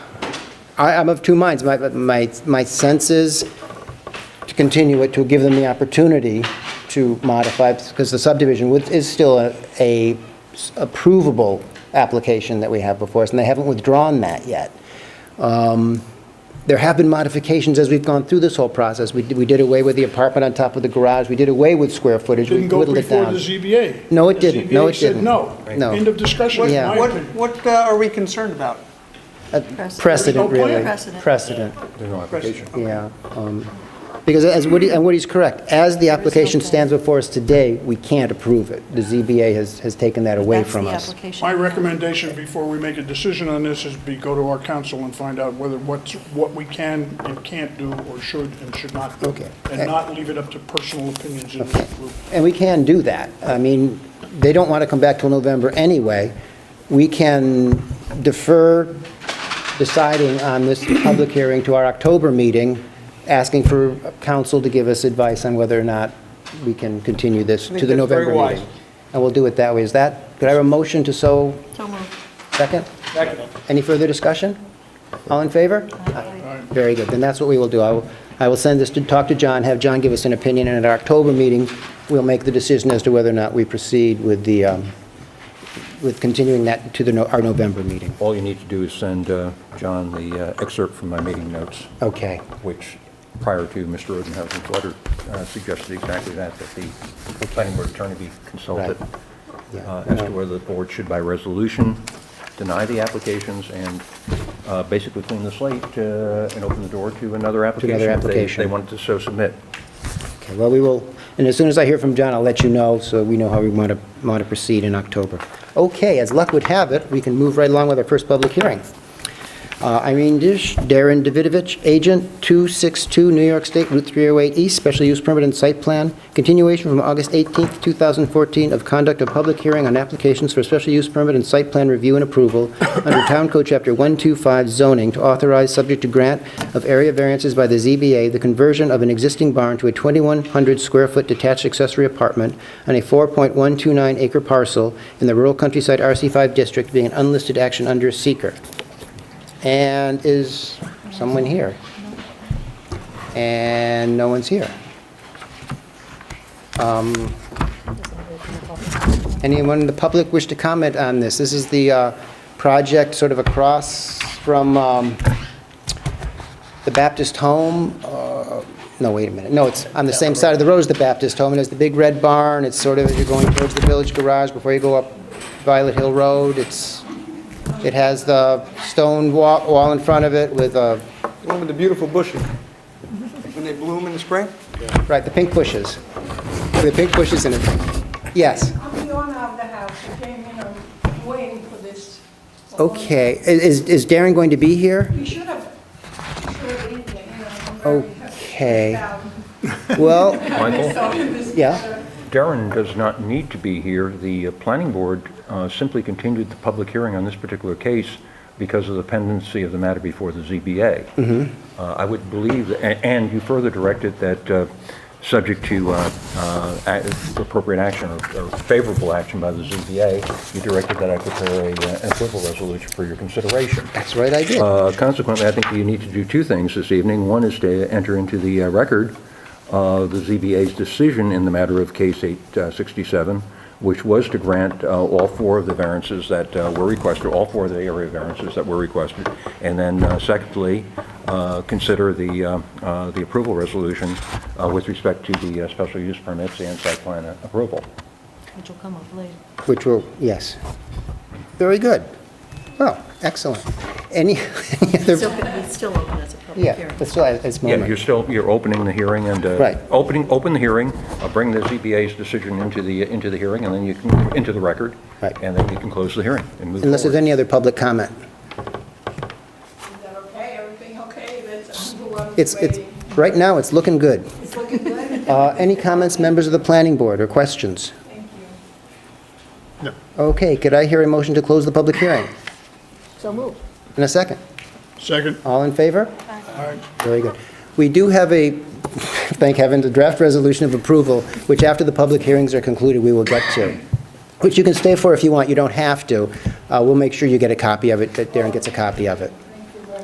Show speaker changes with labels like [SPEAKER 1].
[SPEAKER 1] I, I'm of two minds. My, my, my sense is to continue it, to give them the opportunity to modify, because the subdivision would- is still a- a s- approvable application that we have before us, and they haven't withdrawn that yet. Um, There have been modifications as we've gone through this whole process. We did, we did away with the apartment on top of the garage, we did away with square footage, we
[SPEAKER 2] Didn't go
[SPEAKER 1] whittled it
[SPEAKER 2] before
[SPEAKER 1] down.
[SPEAKER 2] the ZBA.
[SPEAKER 1] No, it
[SPEAKER 2] The
[SPEAKER 1] didn't. No,
[SPEAKER 2] ZBA
[SPEAKER 1] it
[SPEAKER 2] said
[SPEAKER 1] didn't. Right.
[SPEAKER 2] no.
[SPEAKER 1] No.
[SPEAKER 2] End of discussion, in
[SPEAKER 1] Yeah.
[SPEAKER 2] my
[SPEAKER 3] What,
[SPEAKER 2] opinion.
[SPEAKER 3] what uh, are we concerned about?
[SPEAKER 1] Precedent,
[SPEAKER 2] There's no
[SPEAKER 1] really.
[SPEAKER 2] plan.
[SPEAKER 4] Precedent.
[SPEAKER 1] Precedent.
[SPEAKER 3] Question.
[SPEAKER 1] Yeah, um, because as Woody, and Woody's correct, as the application stands before us today, we can't approve it. The ZBA has, has taken that away
[SPEAKER 4] That's
[SPEAKER 1] from
[SPEAKER 4] the
[SPEAKER 1] us.
[SPEAKER 4] application.
[SPEAKER 2] My recommendation before we make a decision on this is be, go to our council and find out whether what's, what we can and can't do or should and should not do.
[SPEAKER 1] Okay.
[SPEAKER 2] And not leave it up to personal opinions in the group.
[SPEAKER 1] And we can do that. I mean, they don't want to come back till November anyway. We can defer deciding on this public hearing to our October meeting, asking for council to give us advice on whether or not we can continue this
[SPEAKER 3] think
[SPEAKER 1] to the
[SPEAKER 3] that's very
[SPEAKER 1] November
[SPEAKER 3] wise.
[SPEAKER 1] meeting. And we'll do it that way. Is that, could I have a motion to so
[SPEAKER 4] So moved.
[SPEAKER 1] Second? Second. Any further discussion? All in favor? Aye. Very good, then that's what we will do. I will, I will send this to, talk to John, have John give us an opinion, and at our October meeting, we'll make the decision as to whether or not we proceed with the, um, with continuing that to the, No- our November meeting.
[SPEAKER 5] All you need to do is send uh, John the uh, excerpt from my meeting notes,
[SPEAKER 1] Okay,
[SPEAKER 5] which prior to Mr. Odenhausen's letter uh, suggested exactly that, that the planning board attorney be consulted
[SPEAKER 1] Right. Yeah.
[SPEAKER 5] uh, as to whether the board should by resolution deny the applications and uh, basically clean the slate uh, and open the door to another application. if they-
[SPEAKER 1] application.
[SPEAKER 5] They wanted to so submit.
[SPEAKER 1] okay, well, we will, and as soon as I hear from John, I'll let you know, so we know how we want to, want to proceed in October. Okay, as luck would have it, we can move right along with our first public hearing. Uh, Irene Dish, Darren Davidovich, agent, 262 New York State Route 308 East, special use permit and site plan, continuation from August 18th, 2014 of conduct of public hearing on applications for special use permit and site plan review and approval under Town Code Chapter 125 zoning to authorize, subject to grant of area variances by the ZBA, the conversion of an existing barn to a 2,100-square-foot detached accessory apartment on a 4.129 acre parcel in the rural countryside RC5 district being an unlisted action under seeker. And is someone here? And no one's here. Um, Anyone in the public wish to comment on this? This is the uh, project sort of across from um, the Baptist Home. uh, No, wait a minute. No, it's on the same side of the road as the Baptist Home. It has the big red barn. It's sort of, as you're going towards the Village Garage before you go up Violet Hill Road. It's, it has the stone wa- wall in front of it with, uh,
[SPEAKER 3] The one with the beautiful bushes, when they bloom in the spring?
[SPEAKER 1] right, the pink bushes. The pink bushes in it. Yes.
[SPEAKER 6] I'm the owner of the house, I came in, I'm waiting for this.
[SPEAKER 1] Okay. I- Is is Darren going to be here?
[SPEAKER 6] You should have, you should have been here, you know, I'm very
[SPEAKER 1] Okay.
[SPEAKER 6] happy.
[SPEAKER 1] Well,
[SPEAKER 5] Michael?
[SPEAKER 6] So, this-
[SPEAKER 1] yeah,
[SPEAKER 5] Darren does not need to be here. The uh, planning board uh, simply continued the public hearing on this particular case because of the pendency of the matter before the ZBA. Uh, I would believe, a- and you further directed that, uh, subject to uh, uh, a- appropriate action or- or favorable action by the ZBA, you directed that I prepare a, uh, an approval resolution for your consideration.
[SPEAKER 1] that's right, I did.
[SPEAKER 5] Uh, Consequently, I think you need to do two things this evening. One is to enter into the uh, record uh, the ZBA's decision in the matter of case 867, which was to grant uh, all four of the variances that uh, were requested, all four of the area variances that were requested. And then uh, secondly, uh, consider the uh, uh, the approval resolution uh, with respect to the uh, special use permits and site plan approval.
[SPEAKER 4] Which will come up later.
[SPEAKER 1] Which will, yes. Very good. Well, excellent. Any any
[SPEAKER 4] Still,
[SPEAKER 1] other,
[SPEAKER 4] it's still open as a public
[SPEAKER 1] yeah,
[SPEAKER 4] hearing.
[SPEAKER 1] that's still at this
[SPEAKER 5] Yeah, you're
[SPEAKER 1] moment.
[SPEAKER 5] still, you're opening the hearing and, uh,
[SPEAKER 1] Right.
[SPEAKER 5] opening, open the hearing, uh, bring the ZBA's decision into the, into the hearing, and then you can, into the record.
[SPEAKER 1] Right.
[SPEAKER 5] And then you can close the hearing and move
[SPEAKER 1] Unless there's
[SPEAKER 5] forward.
[SPEAKER 1] any other public comment.
[SPEAKER 6] Is that okay, everything okay, that's, I'm the one
[SPEAKER 1] It's, it's,
[SPEAKER 6] waiting.
[SPEAKER 1] right now, it's looking good.
[SPEAKER 6] It's looking good,
[SPEAKER 1] Uh, Any comments, members of the planning board, or questions?
[SPEAKER 6] thank you.
[SPEAKER 1] Okay, could I hear a motion to close the public hearing?
[SPEAKER 4] So moved.
[SPEAKER 1] In a second.
[SPEAKER 2] Second,
[SPEAKER 1] All in favor?
[SPEAKER 2] all right.
[SPEAKER 1] Very good. We do have a, thank heaven, a draft resolution of approval, which after the public hearings are concluded, we will get to, which you can stay for if you want, you don't have to. Uh, We'll make sure you get a copy of it, that Darren gets a copy of it.